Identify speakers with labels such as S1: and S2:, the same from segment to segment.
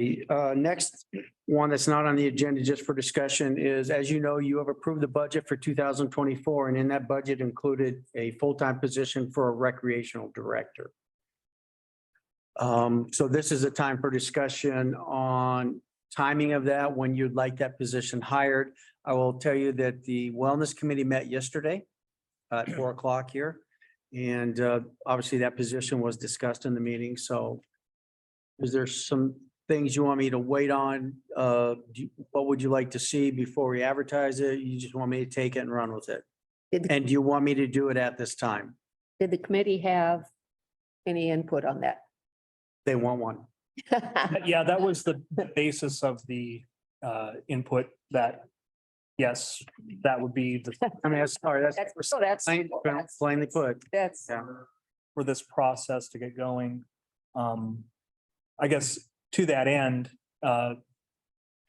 S1: The uh, next one that's not on the agenda just for discussion is, as you know, you have approved the budget for two thousand twenty-four, and in that budget included a full-time position for a recreational director. Um, so this is a time for discussion on timing of that, when you'd like that position hired. I will tell you that the Wellness Committee met yesterday at four o'clock here. And uh, obviously that position was discussed in the meeting, so is there some things you want me to wait on? Uh, do you- what would you like to see before we advertise it? You just want me to take it and run with it?
S2: Did, the-
S1: And do you want me to do it at this time?
S2: did the committee have any input on that?
S1: They want one.
S3: Uh, Yeah, that was the the basis of the uh input that, yes, that would be the,
S1: I mean, that's- sorry, that's
S2: That's, so that's.
S1: plain-
S2: that's-
S1: plainly put.
S2: That's,
S1: Yeah.
S3: for this process to get going. Um, I guess to that end, uh,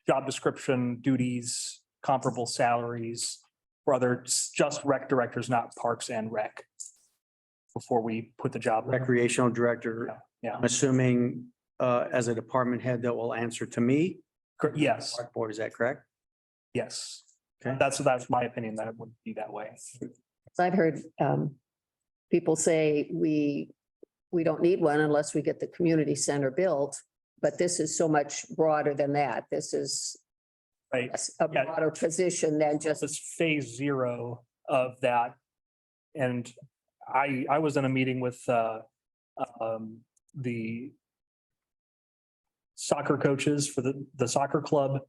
S3: job description, duties, comparable salaries for other s- just rec directors, not parks and rec. Before we put the job.
S1: Recreational Director,
S3: Yeah,
S1: I'm assuming, uh, as a department head that will answer to me.
S3: cor- yes,
S1: Select Board, is that correct?
S3: yes.
S1: Okay.
S3: That's, that's my opinion, that it would be that way.
S2: I've heard, um, people say we, we don't need one unless we get the community center built. But this is so much broader than that. This is
S3: Right,
S2: a s- a
S3: Yeah.
S2: broader position than just,
S3: This is phase zero of that. And I, I was in a meeting with, uh, um, the soccer coaches for the, the soccer club,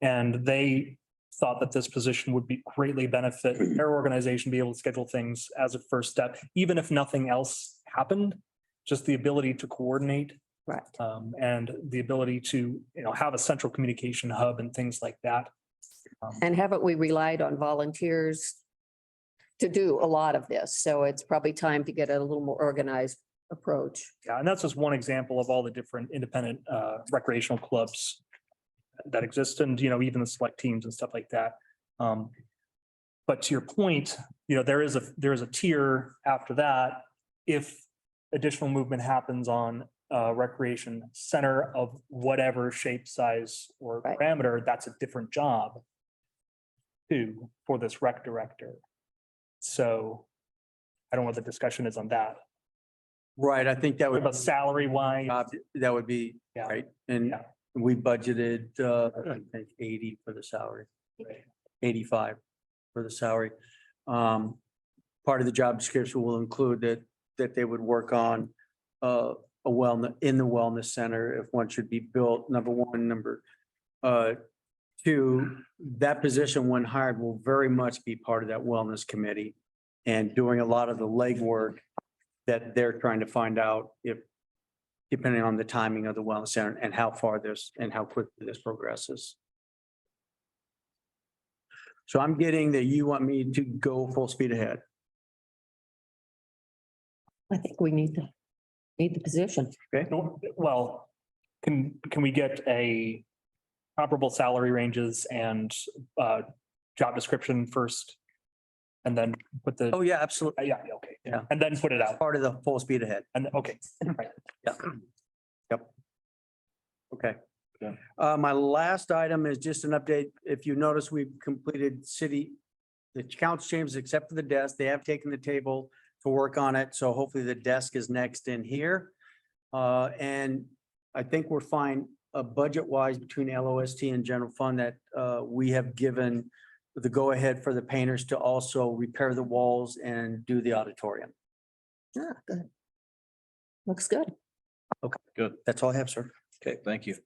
S3: and they thought that this position would be greatly benefit their organization, be able to schedule things as a first step, even if nothing else happened, just the ability to coordinate
S2: right.
S3: um, and the ability to, you know, have a central communication hub and things like that. Um,
S2: And haven't we relied on volunteers to do a lot of this? So it's probably time to get a little more organized approach.
S3: Yeah, and that's just one example of all the different independent uh, recreational clubs that exist and, you know, even the select teams and stuff like that. Um, But to your point, you know, there is a, there is a tier after that. If additional movement happens on uh, recreation center of whatever shape, size or
S2: Right.
S3: parameter, that's a different job too, for this rec director. So I don't know what the discussion is on that,
S1: Right, I think that would,
S3: but salary wise.
S1: Um, uh, that would be,
S3: Yeah.
S1: right, and
S3: Yeah.
S1: we budgeted, uh, I think eighty for the salary.
S3: Right.
S1: Eighty-five for the salary. Um, part of the job description will include that, that they would work on, uh, a wellness, in the wellness center, if one should be built, number one, number, uh, two, that position when hired will very much be part of that wellness committee and doing a lot of the legwork that they're trying to find out if, depending on the timing of the wellness center and how far this and how quickly this progresses. So I'm getting that you want me to go full speed ahead.
S2: I think we need the, need the position.
S3: No, Well, can, can we get a comparable salary ranges and uh, job description first? And then put the, uh,
S1: Oh, yeah, absolutely.
S3: yeah, yeah, okay.
S1: Yeah.
S3: And then put it out.
S1: Part of the full speed ahead.
S3: And, okay, right.
S1: Yeah. Yep. Okay.
S3: Yeah.
S1: Uh, my last item is just an update. If you notice, we've completed city, the council chambers except for the desk. They have taken the table to work on it. So hopefully the desk is next in here. Uh, and I think we're fine, uh, budget wise between LOST and general fund that, uh, we have given the go ahead for the painters to also repair the walls and do the auditorium.
S2: Ah, good. Looks good.
S1: That's all I have, sir.
S4: Okay, thank you.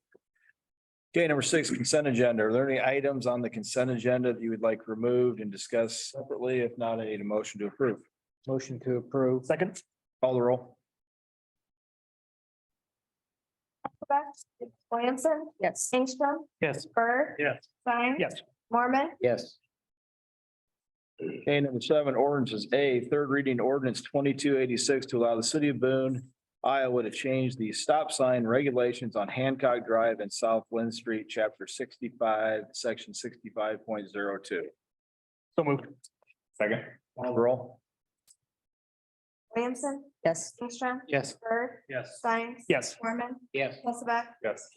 S4: Okay, number six, consent agenda. Are there any items on the consent agenda that you would like removed and discussed separately? If not, I need a motion to approve.
S1: Motion to approve.
S3: Second,
S4: Call the roll.
S5: Beck, Williamson,
S2: Yes.
S5: Ingstrom,
S3: yes.
S5: Bird.
S3: Yes.
S5: Stein.
S3: Yes.
S5: Mormon,
S4: Yes. Okay, number seven, ordinances. A, third reading ordinance twenty-two eighty-six to allow the city of Boone, Iowa to change the stop sign regulations on Hancock Drive and South Lynn Street, chapter sixty-five, section sixty-five point zero two.
S3: So moved.
S4: Second. Call the roll.
S5: Williamson,
S2: Yes.
S5: Ingstrom,
S3: Yes.
S5: Bird,
S3: Yes.
S5: Stein.
S3: Yes.
S5: Mormon,
S4: Yes.
S5: Hulseth.
S4: Yes.